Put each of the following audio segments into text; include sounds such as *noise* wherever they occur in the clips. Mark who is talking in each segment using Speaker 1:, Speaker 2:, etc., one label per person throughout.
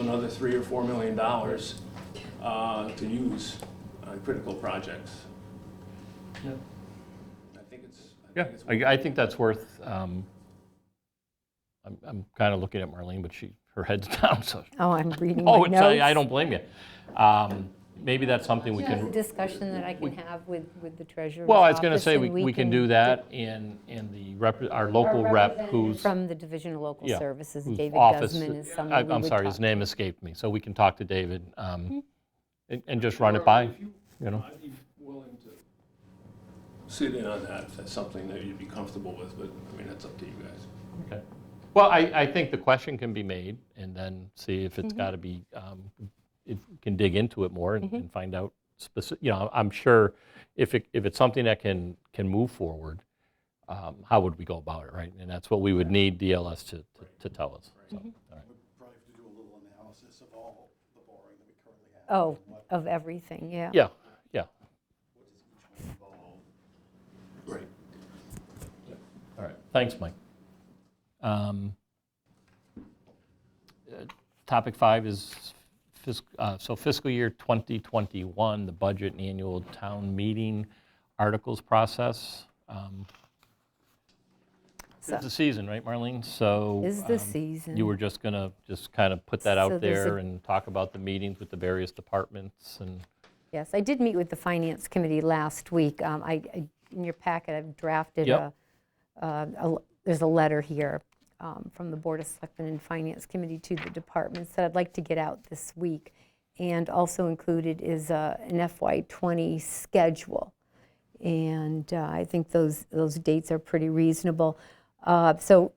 Speaker 1: another three or four million dollars uh, to use on critical projects.
Speaker 2: Yep.
Speaker 1: I think it's. I think
Speaker 3: Yeah,
Speaker 1: it's-
Speaker 3: I, I think that's worth, um, I'm, I'm kind of looking at Marlene, but she, her head's *laughs* down, so.
Speaker 4: Oh, I'm reading my
Speaker 3: Oh,
Speaker 4: notes.
Speaker 3: it's, I I don't blame you. Um, Maybe that's something we
Speaker 5: That's a
Speaker 3: can,
Speaker 5: discussion that I can have with, with the treasurer's
Speaker 3: well, I was going to
Speaker 5: office,
Speaker 3: say,
Speaker 5: and
Speaker 3: we, we can do that in, in the rep, our local rep who's.
Speaker 5: From the Division of Local
Speaker 3: yeah,
Speaker 5: Services,
Speaker 3: whose
Speaker 5: David
Speaker 3: office-
Speaker 5: Guzman is
Speaker 3: I-
Speaker 5: someone we would
Speaker 3: I'm sorry,
Speaker 5: talk Mm-hmm.
Speaker 3: his name escaped me, so we can talk to David um, and and just run it by,
Speaker 1: If you-
Speaker 3: you know?
Speaker 1: I'd be willing to sit in on that if that's something that you'd be comfortable with, but I mean, that's up to you guys.
Speaker 3: Okay. Well, I, I think the question can be made and then see if it's got to be, um, if we can dig into it more and- and find out specific, you know, I'm sure if it, if it's something that can, can move forward, um, how would we go about it, right? And that's what we would need DLS to, to- to tell us. So, all right.
Speaker 6: probably have to do a little analysis of all the borrowing that we currently have.
Speaker 4: Oh, of everything, yeah.
Speaker 3: Yeah, yeah,
Speaker 6: Right.
Speaker 3: all right. Thanks, Mike. Um, uh, Topic five is fiscal, uh, so fiscal year 2021, the budget and annual town meeting articles process. Um,
Speaker 4: So-
Speaker 3: It's the season, right, Marlene? So.
Speaker 4: Is the
Speaker 3: um,
Speaker 4: season.
Speaker 3: You were just going to, just kind of put that
Speaker 4: So
Speaker 3: out
Speaker 4: there's a-
Speaker 3: there and talk about the meetings with the various departments and,
Speaker 4: Yes, I did meet with the Finance Committee last week. Um, I, I- in your packet, I've drafted a,
Speaker 3: Yep.
Speaker 4: uh, a l- there's a letter here um, from the Board of Selectmen and Finance Committee to the departments that I'd like to get out this week. And also included is uh, an FY '20 schedule. And uh, I think those, those dates are pretty reasonable. Uh, So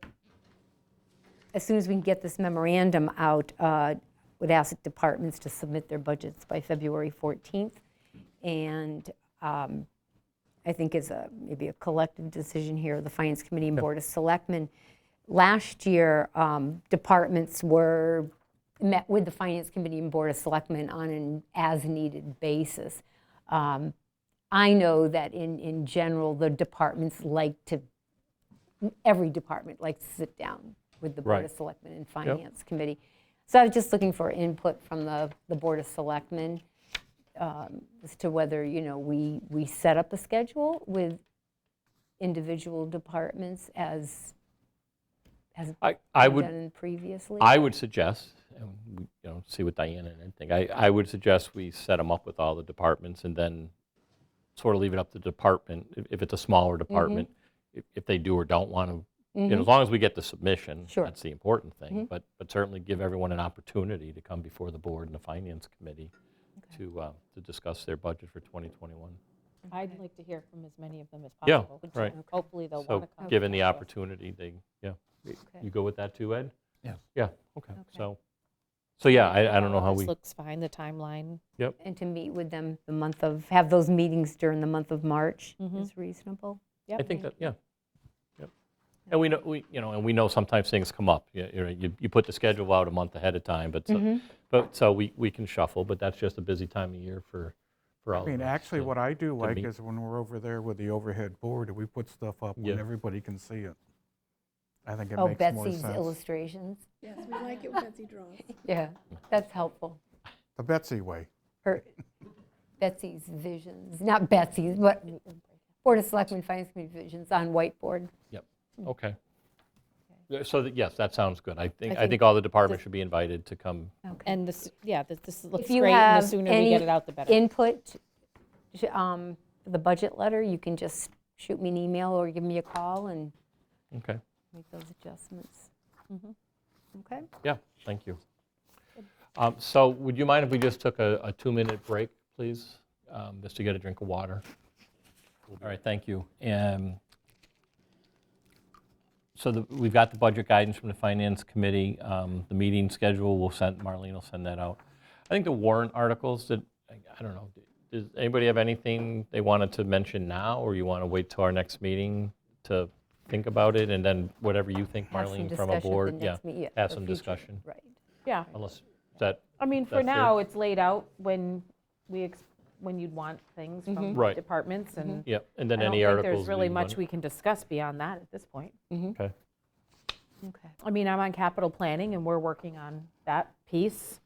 Speaker 4: as soon as we can get this memorandum out, uh, would ask departments to submit their budgets by February 14th. And um, I think it's a, maybe a collective decision here, the Finance Committee and Board of Selectmen. Last year, um, departments were, met with the Finance Committee and Board of Selectmen on an as-needed basis. Um, I know that in, in general, the departments like to, every department likes to sit down with the Board
Speaker 3: Right.
Speaker 4: of Selectmen and Finance Committee. So I was just looking for input from the, the Board of Selectmen um, as to whether, you know, we, we set up a schedule with individual departments as, as
Speaker 3: I, I
Speaker 4: been
Speaker 3: would.
Speaker 4: done previously.
Speaker 3: I would suggest, and we, you know, see what Diana and Ed think, I, I would suggest we set them up with all the departments and then sort of leave it up to the department, if, if it's a smaller department, if, if they do or don't want to, you know, as long as we get the submission,
Speaker 4: Sure.
Speaker 3: that's the important thing, but, but certainly give everyone an opportunity to come before the board and the finance committee to, uh, to discuss their budget for 2021.
Speaker 7: I'd like to hear from as many of them as
Speaker 3: Yeah,
Speaker 7: possible. which
Speaker 3: right.
Speaker 7: Hopefully they'll want
Speaker 3: So
Speaker 7: to come.
Speaker 3: given the opportunity, they, yeah. You go with that too, Ed?
Speaker 6: Yeah.
Speaker 3: Yeah, okay, so, so yeah, I, I don't know how
Speaker 7: This
Speaker 3: we,
Speaker 7: looks fine, the timeline.
Speaker 4: And to meet with them the month of, have those meetings during the month of March is reasonable.
Speaker 7: Yep.
Speaker 3: I think that, yeah. Yep. And we know, we, you know, and we know sometimes things come up. You, you know, you- you put the schedule out a month ahead of time, but, so-
Speaker 7: Mm-hmm.
Speaker 3: but, so we, we can shuffle, but that's just a busy time of year for, for all
Speaker 8: I
Speaker 3: of us.
Speaker 8: mean, actually,
Speaker 3: so-
Speaker 8: what I do like
Speaker 3: meet.
Speaker 8: is when we're over there with the overhead board, we put stuff up
Speaker 3: Yeah.
Speaker 8: when everybody can see it. I think it
Speaker 4: Oh,
Speaker 8: makes more
Speaker 4: Betsy's
Speaker 8: sense.
Speaker 4: illustrations.
Speaker 9: Yes, we like it when Betsy draws.
Speaker 4: Yeah, that's helpful.
Speaker 8: The Betsy way.
Speaker 4: Her, Betsy's visions, not Betsy's, but Board of Selectmen Finance Committee visions on whiteboard.
Speaker 3: Yep, okay. Yeah, So, that- yes, that sounds good. I think, I
Speaker 7: think
Speaker 3: think all the departments should be invited to come.
Speaker 7: And this, yeah, this- this looks
Speaker 4: If you
Speaker 7: great, and the
Speaker 4: have
Speaker 7: sooner we get
Speaker 4: any
Speaker 7: it out, the better.
Speaker 4: input, sh- um, the budget letter, you can just shoot me an email or give me a call and
Speaker 3: Okay,
Speaker 4: make those adjustments. Okay?
Speaker 3: yeah, thank you. Um, So would you mind if we just took a, a two-minute break, please? Um, Just to get a drink of water? All right, thank you. Um, So the- we've got the budget guidance from the Finance Committee. Um, The meeting schedule, we'll send, Marlene will send that out. I think the warrant articles, that, I I don't know, does anybody have anything they wanted to mention now, or you want to wait till our next meeting to think about it, and then whatever you think,
Speaker 4: Have some
Speaker 3: Marlene, from a
Speaker 4: discussion at the
Speaker 3: board?
Speaker 4: next meet- yeah,
Speaker 3: Have
Speaker 4: for
Speaker 3: some
Speaker 4: future-
Speaker 3: discussion,
Speaker 4: Right.
Speaker 10: Yeah,
Speaker 3: unless, is that,
Speaker 10: I mean, for
Speaker 3: That's fair.
Speaker 10: now, it's laid out when we, ex- when you'd want things from
Speaker 3: Right.
Speaker 10: departments,
Speaker 7: Mm-hmm.
Speaker 10: and
Speaker 3: Mm-hmm. yeah, and
Speaker 10: I
Speaker 3: then
Speaker 10: don't
Speaker 3: any
Speaker 10: think
Speaker 3: articles?
Speaker 10: there's really
Speaker 3: we
Speaker 10: much
Speaker 3: want-
Speaker 10: we can discuss beyond that at this point.
Speaker 3: Okay.
Speaker 4: Okay.
Speaker 10: I mean, I'm on capital planning, and we're working on that piece.